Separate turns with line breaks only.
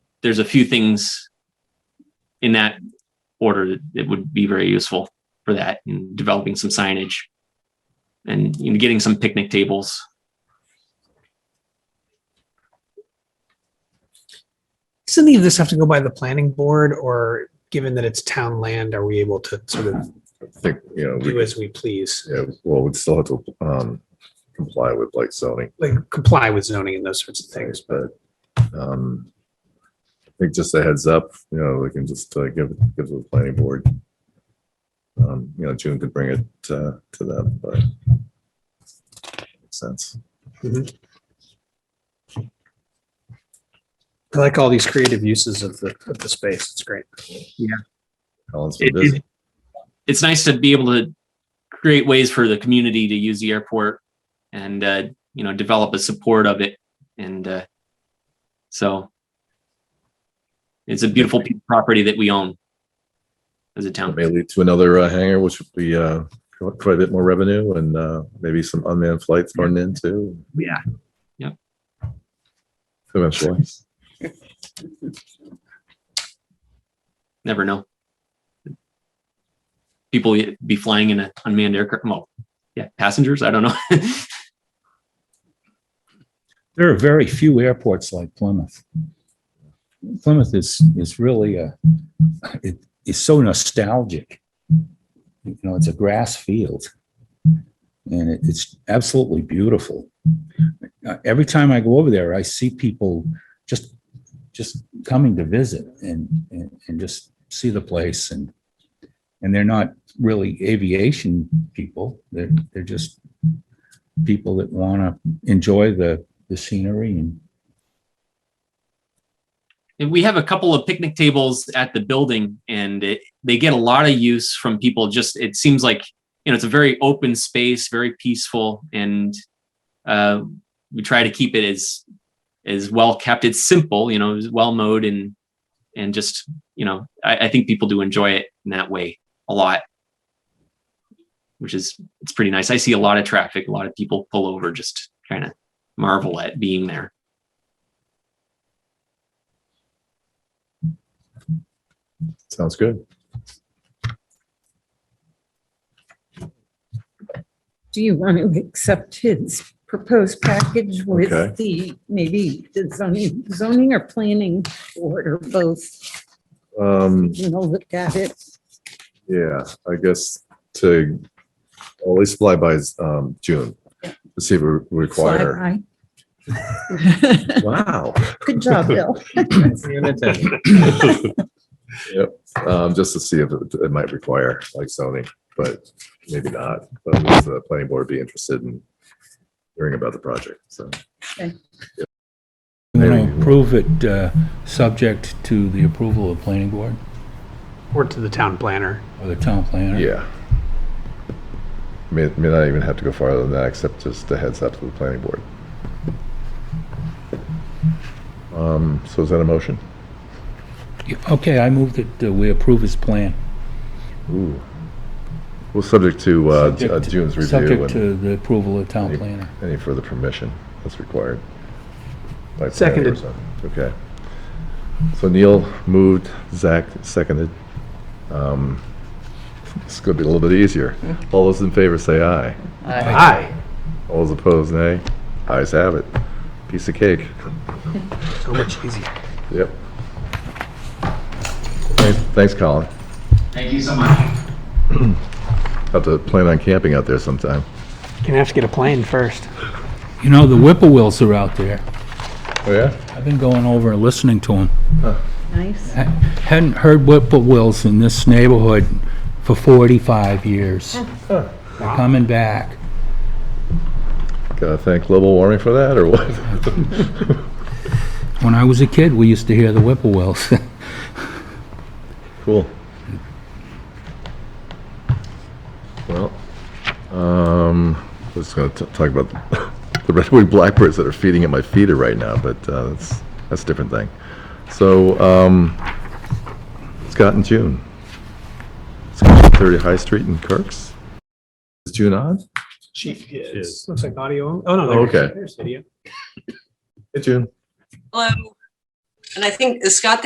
there's a few things in that order that would be very useful for that and developing some signage and you know, getting some picnic tables.
Does any of this have to go by the planning board or given that it's town land, are we able to sort of
think, you know,
do
we,
as we please?
yeah, well, we'd still have to, um, comply with like zoning
Like comply with zoning and those sorts of things,
things, but, um, I think just a heads up, you know, we can just uh, give, give the planning board. Um, you know, June could bring it, uh, to them, but makes sense.
I like all these creative uses of the, of the space. It's great.
Alan's been
It-
busy.
it- It's nice to be able to create ways for the community to use the airport and, uh, you know, develop a support of it. And, uh, so it's a beautiful piece of property that we own as a
It
town.
may lead to another uh, hangar, which would be, uh, quite a bit more revenue and, uh, maybe some unmanned flights thrown in too.
Yeah.
Yep.
Eventually.
Never know. People be flying in an unmanned aircraft. Well, yeah, passengers. I don't know.
There are very few airports like Plymouth. Plymouth is, is really a, it is so nostalgic. You know, it's a grass field. And it- it's absolutely beautiful. Uh, Every time I go over there, I see people just, just coming to visit and, and, and just see the place and, and they're not really aviation people. They're, they're just people that want to enjoy the, the scenery and
And we have a couple of picnic tables at the building and it, they get a lot of use from people. Just, it seems like, you know, it's a very open space, very peaceful. And, uh, we try to keep it as, as well kept. It's simple, you know, it's well mowed and, and just, you know, I, I think people do enjoy it in that way a lot. Which is, it's pretty nice. I see a lot of traffic, a lot of people pull over, just trying to marvel at being there.
Sounds good.
Do you want to accept his proposed package
Okay.
with the, maybe the zoning, zoning or planning board or both?
Um,
You know, look at it.
Yeah, I guess to well, at least fly by um June, to see if we require.
Fly high.
Wow.
Good job, Bill.
Yep, um, just to see if it it might require like zoning, but maybe not. But at least the planning board would be interested in hearing about the project, so.
you
Maybe.
know, approve it, uh, subject to the approval of planning board
Or to the town planner.
or the town planner.
Yeah. May, may not even have to go farther than that, except just a heads up to the planning board. Um, so is that a motion?
Okay, I move that uh, we approve his plan.
Ooh. Well, subject to, uh,
Subject
uh,
to-
June's review
Subject
and
to the approval of town
Any-
planner.
any further permission that's required. by planning
Seconded.
or something. Okay. So Neil moved, Zach seconded. Um, This could be a little bit easier. All those in favor say aye.
Aye.
All those opposed, nay. Ayes have it. Piece of cake.
So much easier.
Yep. Thanks, thanks, Colin.
Thank you so much.
Have to plan on camping out there sometime.
Gonna have to get a plane first.
You know, the whippoorwills are out there.
Oh, yeah?
I've been going over and listening to them.
Nice.
Hadn't heard whippoorwills in this neighborhood for 45 years. They're coming back.
Gotta uh, thank global warming for that, or what?
When I was a kid, we used to hear the whippoorwills.
Cool. Well, um, I was gonna t- talk about the red-winged blackbirds that are feeding at my feeder right now, but, uh, that's, that's a different thing. So, um, Scott and June. Scott, thirty High Street in Kirk's. Is June on?
Chief, yes. Looks like audio. Oh, no.
Oh,
there's-
okay.
There's video.
Hey, June.
Hello. And I think, is Scott